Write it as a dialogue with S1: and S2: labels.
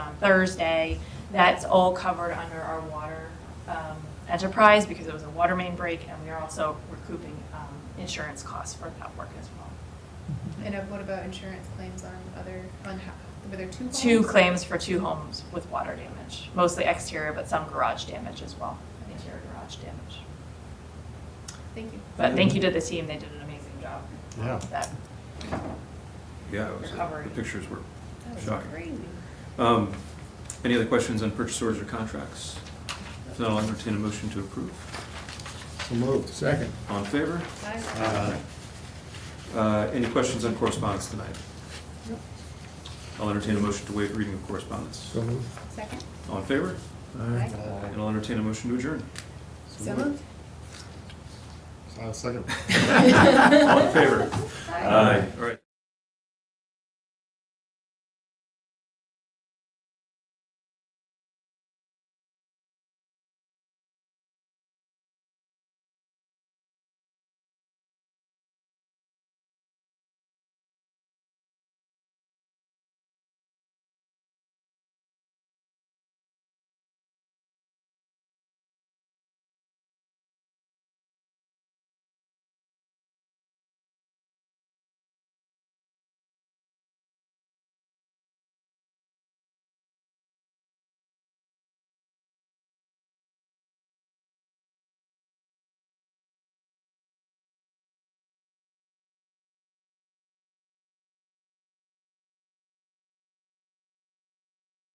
S1: Thursday. That's all covered under our water um, enterprise because it was a water main break, and we are also recouping um, insurance costs for that work as well.
S2: And uh, what about insurance claims on other, on, ho- were there two homes?
S1: Two claims for two homes with water damage, mostly exterior, but some garage damage as well, interior garage damage.
S2: Thank you.
S1: But thank you to the team, they did an amazing job.
S3: Yeah.
S1: That
S4: Yeah, it was, uh,
S1: Recovery.
S4: the pictures were
S2: That was
S4: shocking.
S2: crazy.
S4: Um, Any other questions on purchase orders or contracts? If not, I'll entertain a motion to approve.
S3: So moved. Second.
S4: All in favor?
S2: Aye.
S3: Aye.
S4: Uh, Any questions on correspondence tonight?
S2: Nope.
S4: I'll entertain a motion to waive reading of correspondence.
S3: So moved.
S2: Second?
S4: All in favor?
S2: Aye.
S4: And I'll entertain a motion to adjourn.
S2: So moved?
S3: Uh, Second.
S4: All in favor? All right.